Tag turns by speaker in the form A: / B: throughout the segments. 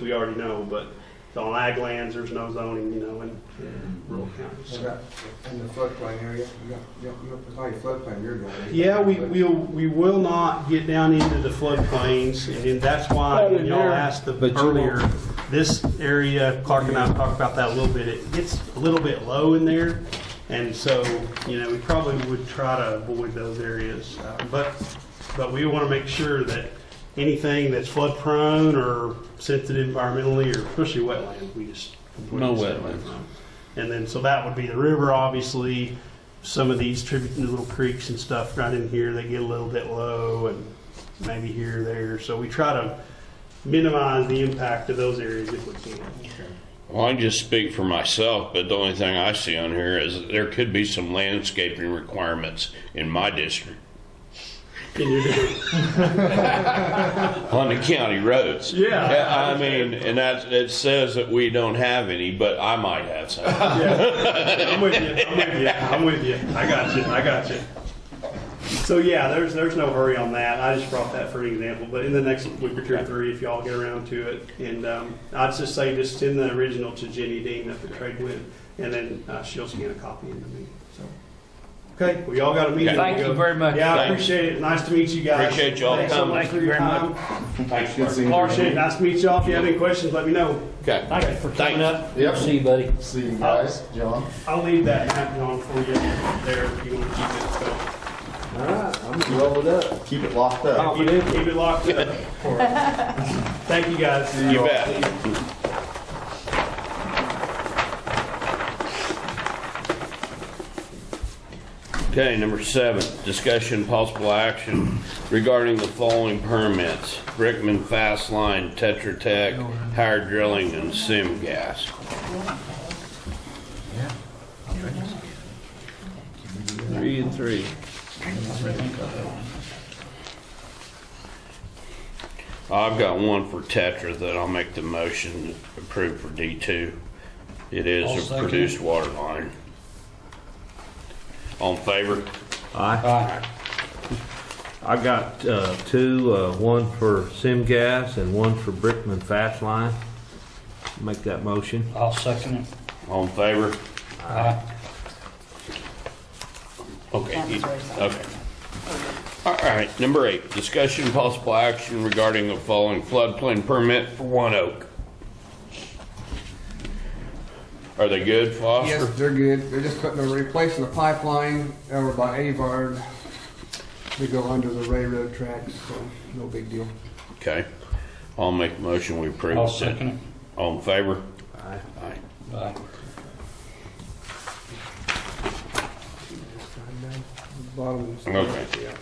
A: we already know, but it's on ag lands, there's no zoning, you know, in rural counties.
B: Okay, In the floodplain area, you got, you don't- you don't- it's not your floodplain you're going in.
A: Yeah, we, we'll, we will not get down into the floodplains, and then that's why, when y'all asked the-
C: But you won't.
A: earlier, this area, Clark and I talked about that a little bit, it gets a little bit low in there, and so, you know, we probably would try to avoid those areas. Uh, But, but we want to make sure that anything that's flood prone or sensitive environmentally, or especially wetlands, we just.
C: No
A: stay away
C: wetlands.
A: from. And then, so that would be the river, obviously, some of these tribute little creeks and stuff right in here, they get a little bit low and maybe here, there. So we try to minimize the impact of those areas if we can.
D: Well, I can just speak for myself, but the only thing I see on here is that there could be some landscaping requirements in my district
A: Can you do-
D: on the county roads.
A: Yeah.
D: I mean, and that, it says that we don't have any, but I might have some.
A: Yeah. I'm with you, I'm with you, I'm with you. I got you, I got you. So yeah, there's, there's no hurry on that. I just brought that for an example, but in the next week or two or three, if y'all get around to it. And, um, I'd just say just send the original to Jenny Dean at the trade with, and then, uh, she'll scan a copy into me, so. Okay, we all got a meeting.
C: Thank you very much.
A: Yeah, I
D: Thanks.
A: appreciate it. Nice to meet you guys.
D: Appreciate y'all
A: Thanks so
D: coming.
A: much
D: Thank
A: for
C: you
A: your
C: very
A: time.
D: Thanks, Mark.
A: Appreciate it. Nice to meet y'all. If you have any questions, let me know.
D: Okay.
C: Thank you for coming
D: Thanks.
C: up.
B: Yep.
C: See you, buddy.
B: See you guys, John.
A: I'll leave that map on for you there if you want to keep it. So
B: All right, I'm gonna roll it up. Keep it locked up.
A: Keep it, keep it locked up. for us. Thank you, guys.
D: You bet. Okay, number seven, discussion possible action regarding the following permits. Brickman Fast Line, Tetra Tech, Higher Drilling, and Sim Gas. Three and three. I've got one for Tetra that I'll make the motion approved for D2. It
C: I'll
D: is a
C: second.
D: produced water line. On favor?
E: Aye. I got uh, two, uh, one for Sim Gas and one for Brickman Fast Line. Make that motion.
C: I'll second it.
D: On favor?
C: Aye.
D: Okay,
F: That was very sad.
D: okay. All right, number eight, discussion possible action regarding the following floodplain permit for One Oak. Are they good,
B: Yes,
D: Foster?
B: they're good. They're just putting, they're replacing the pipeline over by Avard to go under the railroad tracks, so no big deal.
D: Okay, I'll make a motion, we approve.
C: I'll second it.
D: On favor?
E: Aye.
D: Aye.
C: Aye.
B: Bottom. is-
D: Okay.
B: Yeah.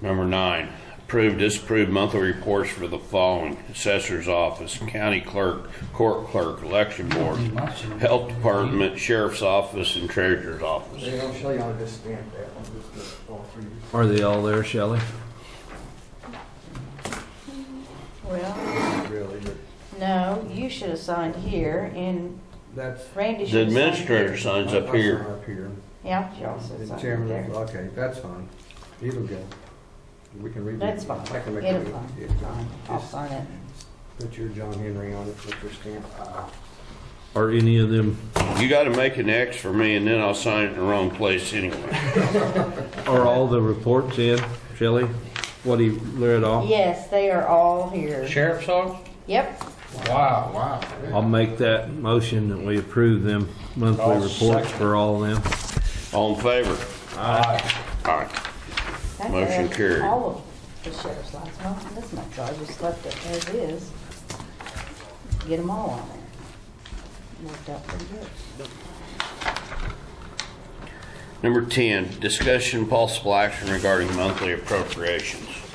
D: Number nine, approve, disapprove monthly reports for the following. Assessor's Office, County Clerk, Court Clerk, Election Board, Health Department, Sheriff's Office, and Treasurer's Office.
B: They don't show you how to just stamp that one, just the- all three.
E: Are they all there, Shelley?
F: Well,
B: Really, but
F: no, you should have signed here, and
B: that's.
F: Randy
D: The
F: should have signed.
D: administrator signs up
B: I- I
D: here.
B: saw Up here.
F: Yeah, you also
B: The
F: signed
B: chairman,
F: there.
B: okay, that's fine. It'll go. We can read it.
F: That's fine.
B: I can make
F: It'll
B: it.
F: fine.
B: Yeah,
F: Fine. I'll
B: just
F: sign it.
B: Put your John Henry on it, put your stamp. Ah,
E: Are any of them,
D: You gotta make an X for me, and then I'll sign it in the wrong place anyway.
E: are all the reports in, Shelley? What he read off?
F: Yes, they are all here.
C: Sheriff's Office?
F: Yep,
C: Wow. Wow.
E: I'll make that motion that we approve them monthly
C: I'll
E: reports
C: second.
E: for all of them.
D: All in favor?
C: Aye.
D: Aye.
F: that's
D: Motion
F: it.
D: carried.
F: All of the sheriff's last month, and this month, so I just left it as is. Get them all on there. Worked out pretty good.
D: Number ten, discussion possible action regarding monthly appropriations.